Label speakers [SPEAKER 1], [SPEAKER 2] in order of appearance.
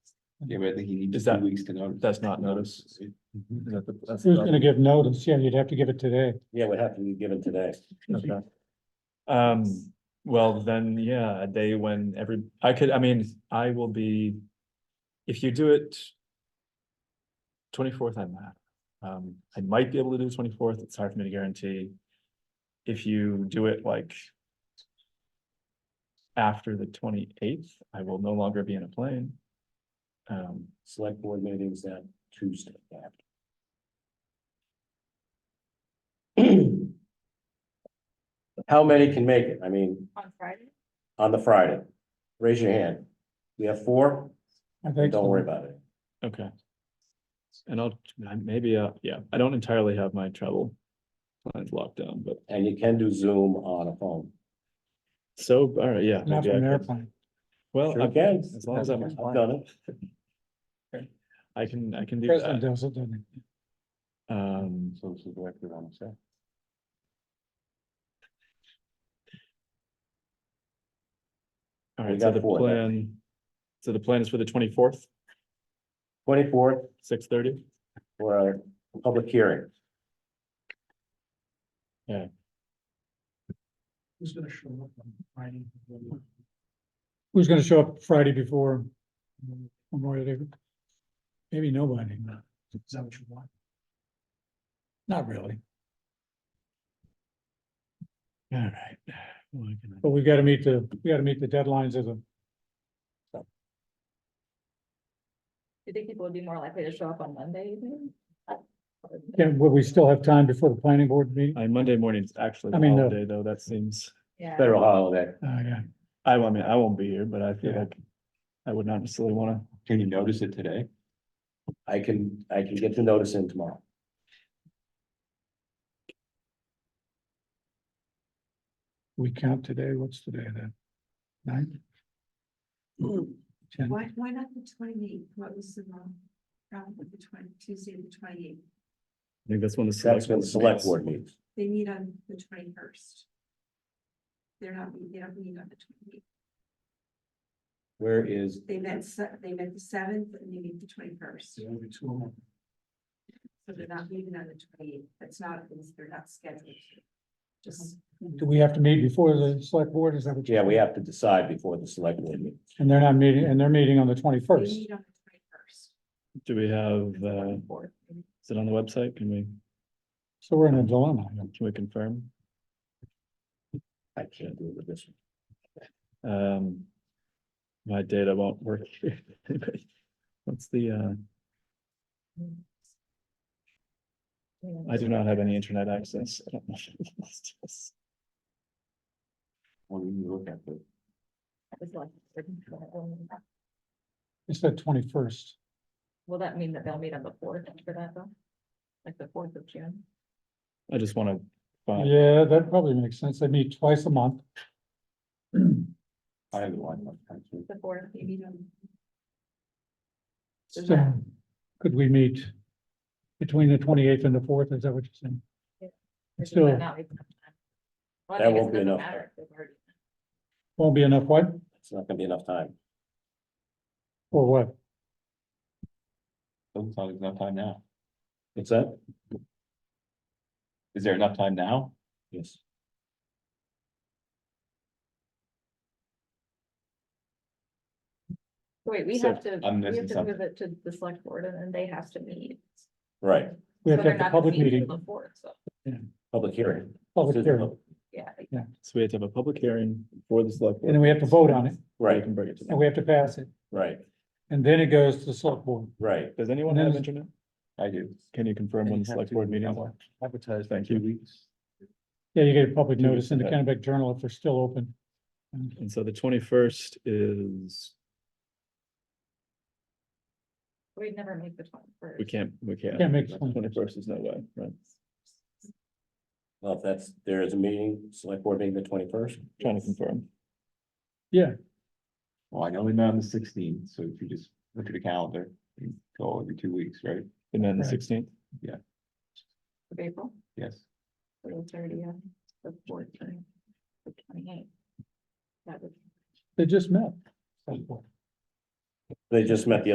[SPEAKER 1] Yeah, but I think you need
[SPEAKER 2] Is
[SPEAKER 1] two
[SPEAKER 2] that-
[SPEAKER 1] weeks to notice.
[SPEAKER 2] that's not notice? Is that the- that's
[SPEAKER 3] Who's
[SPEAKER 2] the-
[SPEAKER 3] gonna give notice? Yeah, you'd have to give it today.
[SPEAKER 4] Yeah, would have to be given today.
[SPEAKER 2] Okay. Um, well, then, yeah, a day when every, I could, I mean, I will be, if you do it. Twenty-fourth, I'm not, um, I might be able to do twenty-fourth, it's hard for me to guarantee. If you do it like. After the twenty-eighth, I will no longer be in a plane. Um,
[SPEAKER 4] Select board meetings that Tuesday. after. How many can make it? I mean,
[SPEAKER 5] On Friday?
[SPEAKER 4] on the Friday? Raise your hand. We have four?
[SPEAKER 3] I think.
[SPEAKER 4] Don't worry about it.
[SPEAKER 2] okay. And I'll, I- maybe, uh, yeah, I don't entirely have my travel plans locked down, but.
[SPEAKER 4] And you can do Zoom on a phone.
[SPEAKER 2] So, all right, yeah.
[SPEAKER 3] Not
[SPEAKER 2] maybe
[SPEAKER 3] from
[SPEAKER 2] I
[SPEAKER 3] an
[SPEAKER 2] could-
[SPEAKER 3] airplane.
[SPEAKER 2] Well,
[SPEAKER 4] Sure
[SPEAKER 2] I
[SPEAKER 4] can.
[SPEAKER 2] can, as long as I'm,
[SPEAKER 4] I've
[SPEAKER 2] flying,
[SPEAKER 4] done it.
[SPEAKER 2] I can, I can do
[SPEAKER 3] President
[SPEAKER 2] that.
[SPEAKER 3] does it, doesn't he?
[SPEAKER 2] Um,
[SPEAKER 1] So this is what we want to say.
[SPEAKER 2] all
[SPEAKER 4] We
[SPEAKER 2] right, so
[SPEAKER 4] got
[SPEAKER 2] the
[SPEAKER 4] four, that's-
[SPEAKER 2] plan, so the plan is for the twenty-fourth,
[SPEAKER 4] Twenty-fourth
[SPEAKER 2] six thirty?
[SPEAKER 4] for a public hearing.
[SPEAKER 3] Who's gonna show up on Friday? Who's gonna show up Friday before Memorial Day? Maybe nobody. Is that what you want? Not really,
[SPEAKER 2] All right. Well, I can-
[SPEAKER 3] but we've gotta meet the, we gotta meet the deadlines of the,
[SPEAKER 5] Do you think people would be more likely to show up on Monday evening?
[SPEAKER 3] yeah, will we still have time before the planning board meeting?
[SPEAKER 2] I, Monday morning's actually
[SPEAKER 3] I
[SPEAKER 2] the
[SPEAKER 3] mean, the-
[SPEAKER 2] holiday, though, that seems,
[SPEAKER 5] Yeah.
[SPEAKER 4] Federal holiday.
[SPEAKER 3] Oh, yeah.
[SPEAKER 2] I, I mean, I won't be here, but I feel
[SPEAKER 3] Yeah.
[SPEAKER 2] like I would not necessarily wanna,
[SPEAKER 1] Can you notice it today?
[SPEAKER 4] I can, I can get the notice in tomorrow.
[SPEAKER 3] We count today, what's today then? Nine? Ten,
[SPEAKER 6] Why, why not the twenty-eighth? What was the wrong problem with the twenty, Tuesday, the twenty-eighth?
[SPEAKER 2] I think that's when the.
[SPEAKER 4] That's when the select
[SPEAKER 2] meets.
[SPEAKER 4] board meets.
[SPEAKER 6] They meet on the twenty-first. They're not, meet- they don't meet on the twenty-eighth.
[SPEAKER 4] Where is
[SPEAKER 6] They met, se- they met the seventh and they meet the twenty-first. So they're not meeting on the twenty-eighth. That's not, they're not scheduled. to. Just,
[SPEAKER 3] do we have to meet before the select board, is that what? you-
[SPEAKER 4] Yeah, we have to decide before the select board meeting.
[SPEAKER 3] And they're not meeting, and they're meeting on the
[SPEAKER 6] they
[SPEAKER 3] twenty-first.
[SPEAKER 6] meet on the twenty-first.
[SPEAKER 2] Do we have, uh, is it on the website? Can we,
[SPEAKER 3] So we're in a dilemma. you know.
[SPEAKER 2] can we confirm?
[SPEAKER 4] I can't do it with this. one.
[SPEAKER 2] Um, my data won't work. What's the, uh? I do not have any internet access. I don't know. Let's just-
[SPEAKER 1] When you look at the,
[SPEAKER 3] It's the twenty-first.
[SPEAKER 5] Will that mean that they'll meet on the fourth after that though? Like the fourth of June?
[SPEAKER 2] I just wanna find,
[SPEAKER 3] Yeah, that probably makes sense. They meet twice a month.
[SPEAKER 1] I have a lot of time to-
[SPEAKER 5] The fourth,
[SPEAKER 6] They meet on,
[SPEAKER 5] Is
[SPEAKER 3] So could we meet between the twenty-eighth and the fourth? Is that what you're saying?
[SPEAKER 5] or does
[SPEAKER 3] Still-
[SPEAKER 5] that not even have time? Well, I
[SPEAKER 4] That
[SPEAKER 5] think it
[SPEAKER 4] won't be
[SPEAKER 5] doesn't
[SPEAKER 4] enough.
[SPEAKER 5] matter if they've already-
[SPEAKER 3] Won't be enough what?
[SPEAKER 4] It's not gonna be enough time.
[SPEAKER 3] Or what?
[SPEAKER 1] Doesn't sound like enough time now.
[SPEAKER 4] What's that?
[SPEAKER 1] Is there enough time now?
[SPEAKER 4] Yes.
[SPEAKER 5] Wait, we
[SPEAKER 2] So,
[SPEAKER 5] have to,
[SPEAKER 1] I'm
[SPEAKER 5] we have
[SPEAKER 1] missing
[SPEAKER 5] to
[SPEAKER 1] something.
[SPEAKER 5] move it to the select board and then they have to meet.
[SPEAKER 4] Right,
[SPEAKER 3] We have to
[SPEAKER 5] So they're
[SPEAKER 3] have the
[SPEAKER 5] not
[SPEAKER 3] public
[SPEAKER 5] meeting
[SPEAKER 3] meeting,
[SPEAKER 5] till The fourth, so,
[SPEAKER 4] public hearing.
[SPEAKER 3] public hearing,
[SPEAKER 5] yeah.
[SPEAKER 2] so we have to have a public hearing for the select.
[SPEAKER 3] and then we have to vote on it,
[SPEAKER 4] Right,
[SPEAKER 2] Can bring it to
[SPEAKER 3] and
[SPEAKER 2] them.
[SPEAKER 3] we have to pass it,
[SPEAKER 4] right,
[SPEAKER 3] and then it goes to the select board.
[SPEAKER 4] right.
[SPEAKER 2] Does anyone
[SPEAKER 3] And then
[SPEAKER 2] have
[SPEAKER 3] it's-
[SPEAKER 2] internet?
[SPEAKER 1] I do.
[SPEAKER 2] Can you confirm when the select board meeting? is?
[SPEAKER 1] Advertised
[SPEAKER 2] Thank
[SPEAKER 1] two
[SPEAKER 2] you.
[SPEAKER 1] weeks.
[SPEAKER 3] Yeah, you get a public
[SPEAKER 2] Two weeks
[SPEAKER 3] notice in the
[SPEAKER 2] from
[SPEAKER 3] Kennebec Journal if they're still open.
[SPEAKER 2] And so the twenty-first is,
[SPEAKER 5] We'd never make the twenty-first.
[SPEAKER 2] we can't, we can't.
[SPEAKER 3] Can't make the 21st.
[SPEAKER 2] Twenty-first is no way, right?
[SPEAKER 4] Well, if that's, there is a meeting, select board meeting the twenty-first.
[SPEAKER 2] Trying to confirm.
[SPEAKER 1] Well, I know we met on the sixteenth, so if you just look at the calendar, you go every two weeks, right?
[SPEAKER 2] And then the
[SPEAKER 3] Right.
[SPEAKER 2] sixteenth,
[SPEAKER 5] Of April,
[SPEAKER 1] Yes.
[SPEAKER 5] so the thirtieth, the fourth, the twenty-eighth. That would
[SPEAKER 3] They just met. select board.
[SPEAKER 4] They just met the